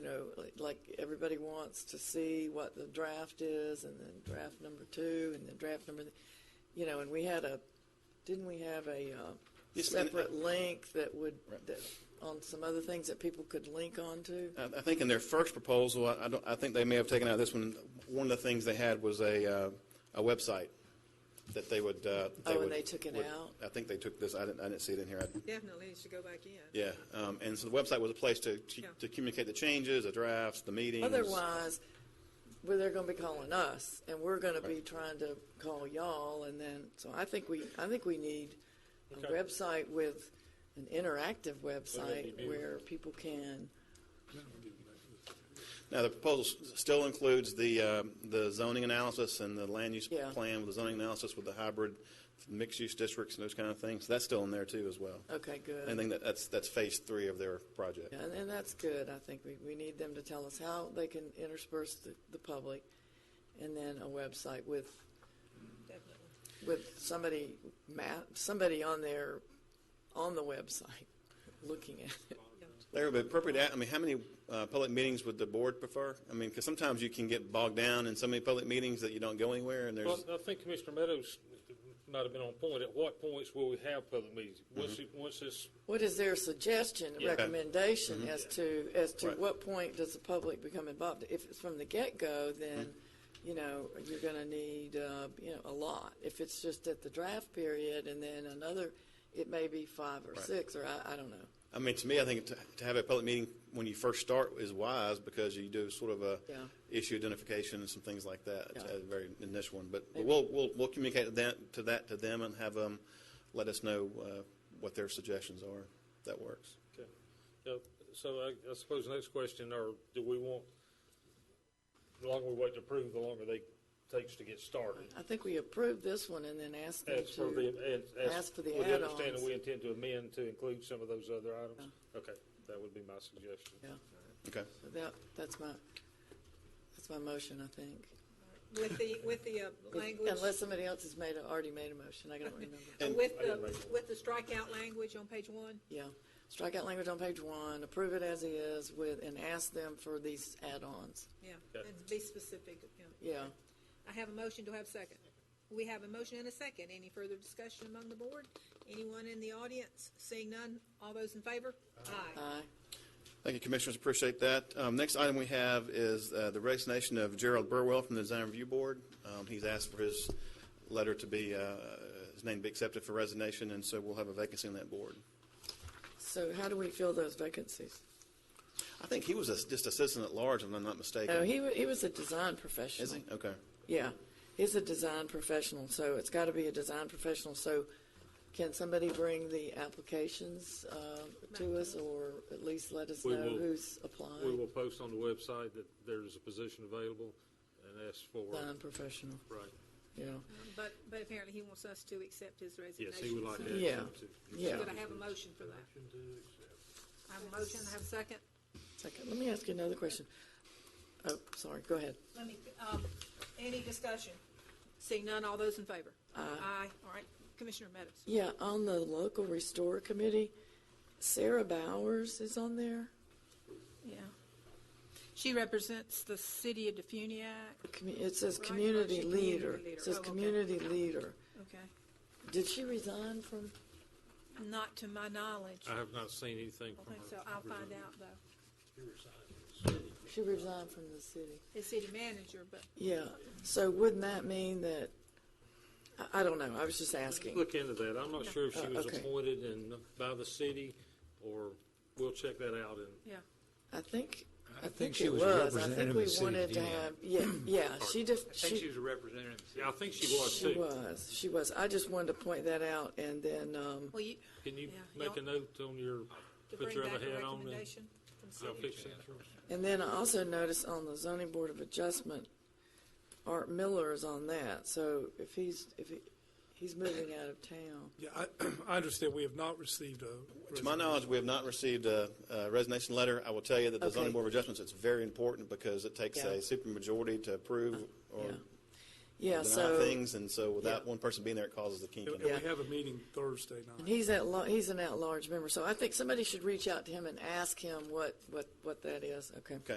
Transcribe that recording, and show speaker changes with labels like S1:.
S1: know, like- like everybody wants to see what the draft is, and then draft number two, and then draft number, th- you know, and we had a, didn't we have a uh,
S2: Yes, ma'am.
S1: separate link that would,
S2: Right. Uh,
S1: that, on some other things that people could link onto?
S2: I, I think in their first proposal, I, I don't, I think they may have taken out this one. One of the things they had was a, uh, a website that they would, uh,
S1: Oh, and
S2: would-
S1: they took it
S2: would-
S1: out?
S2: I think they took this, I didn't, I didn't see it in here. I-
S3: Definitely, it should go back in.
S2: Yeah, um, and so the website was a place to, to,
S3: Yeah.
S2: to communicate the changes, the drafts, the meetings.
S1: Otherwise, well, they're going to be calling us, and we're going to be trying to call y'all, and then so I think we I think we need a
S4: Okay.
S1: website with an interactive website
S4: be-
S1: where people can.
S2: Now, the proposal s- still includes the, um, the zoning analysis and the land use
S1: Yeah.
S2: plan with the zoning analysis with the hybrid mixed-use districts and those kind of things. That's still in there too as well.
S1: Okay, good.
S2: I think that, that's, that's phase three of their project.
S1: Yeah, and, and that's good. I think we, we need them to tell us how they can intersperse the, the public, and then a website with
S3: Definitely.
S1: with somebody map somebody on there on the website looking at it.
S2: Larry, but appropriate, a- I mean, how many uh, public meetings would the board prefer? I mean, because sometimes you can get bogged down in so many public meetings that you don't go anywhere, and
S4: Well,
S2: there's,
S4: I think Commissioner Meadows might have been on point. At what points will we have public meetings? Once, it- once this,
S1: What is their suggestion,
S4: Yeah.
S1: recommendation as to as to
S2: Right.
S1: what point does the public become involved? If it's from the get go, then you know you're going to need uh, you know a lot. If it's just at the draft period and then another, it may be five or six or I, I don't know.
S2: I mean, to me, I think to to have a public meeting when you first start is wise, because you do sort of a
S1: Yeah.
S2: issue identification and some things like that, It's
S1: Yeah.
S2: a very initial one, but but we'll, we'll, we'll communicate that, to that, to them, and have them let us know uh, what their suggestions are, If that works.
S4: okay. Yeah, uh, so I, I suppose the next question, or do we want, the longer we wait to approve, the longer they takes to get started?
S1: I think we approved this one and then asked them
S4: As
S1: to
S4: for the, as. as-
S1: ask for the
S4: With the understanding
S1: add-ons.
S4: we intend to amend to include some of those other items? Okay, that would be my suggestion.
S1: Yeah.
S2: Okay,
S1: So that that's my that's my motion. I think
S3: With the, with the uh, language,
S1: unless somebody else has made a, already made a motion, I don't remember.
S3: uh,
S2: And-
S3: with the, with the strikeout language on page one,
S1: Yeah, strike out language on page one, approve it as is with, and ask them for these add-ons.
S3: yeah,
S4: Yeah.
S3: and be specific, yeah.
S1: Yeah,
S3: I have a motion, do I have a second? We have a motion and a second, any further discussion among the board? Anyone in the audience? Seeing none, all those in favor? Aye.
S1: aye.
S2: thank you, Commissioners, appreciate that. Um, Next item we have is uh, the resignation of Gerald Burwell from the Design Review Board. Um, He's asked for his letter to be, uh, his name to be accepted for resignation, and so we'll have a vacancy on that board.
S1: So how do we fill those vacancies?
S2: I think he was a- just a citizen at large, if I'm not mistaken.
S1: No, Oh, he, wa- he was a design professional.
S2: Is he? Okay.
S1: Yeah, he's a design professional, so it's got to be a design professional. So can somebody bring the applications uh, to us or at least let us
S4: We
S1: know
S4: will.
S1: who's
S4: We
S1: applied?
S4: will post on the website that there's a position available and ask for,
S1: Design professional,
S4: right.
S1: yeah.
S3: But, but apparently he wants us to accept his resignation.
S4: Yes, he would like
S3: so-
S4: to.
S1: Yeah.
S4: accept it.
S1: Yeah.
S3: Could I have a motion for that? I have a motion, I have a second.
S1: Second, let me ask you another question. Oh, sorry, go ahead.
S3: Let me, um, any discussion? Seeing none, all those in favor? Aye. All right, Commissioner Meadows.
S1: Yeah, on the local restore committee, Sarah Bowers is on there.
S3: Yeah. She represents the city of Defuniak.
S1: Commu- It says
S3: Right,
S1: community
S3: right, she community
S1: leader.
S3: leader.
S1: It says
S3: Oh, okay.
S1: community leader.
S3: Okay.
S1: Did she resign from,
S3: Not to my knowledge.
S4: I have not seen anything
S3: I
S4: from
S3: think so.
S4: her.
S3: I'll find out though.
S1: she resigned from the city?
S3: The city manager, but
S1: Yeah, so wouldn't that mean that, I, I don't know, I was just asking.
S4: Look into that. I'm not sure if she
S1: Uh,
S4: was
S1: okay.
S4: appointed in, by the city, or we'll check that out and
S3: yeah.
S1: I think, I think
S5: she
S1: it
S5: was a
S1: was. I
S5: representative
S1: think
S5: of
S1: we
S5: the city of
S1: wanted to
S5: Dean.
S1: have, yeah, yeah, she just,
S5: I think she was a representative.
S4: Yeah, I think she was
S1: she
S4: too.
S1: was, she was. I just wanted to point that out and then, um,
S3: Well, you,
S4: Can you
S3: Yeah,
S4: make a
S3: y'all-
S4: note on your,
S3: to
S4: put
S3: bring
S4: your other
S3: back a
S4: hat on and
S3: recommendation from
S4: I'll
S3: city.
S4: fix that?
S1: And then I also noticed on the zoning board of adjustment, Art Miller is on that, so if he's, if he, he's moving out of town.
S6: Yeah, I, I understand we have not received a.
S2: To my knowledge, we have not received a a resignation letter. I will tell you that the
S1: Okay.
S2: zoning board of adjustments, it's very important because it takes
S1: Yeah.
S2: a supermajority to approve or
S1: Yeah. Yeah,
S2: deny
S1: so,
S2: things, and so without
S1: Yeah.
S2: one person being there, it causes the kink in
S6: And
S2: it.
S6: and
S1: Yeah.
S6: we have a meeting Thursday
S1: and
S6: night.
S1: he's at, la- he's an at-large member, so I think somebody should reach out to him and ask him what, what, what that is, okay?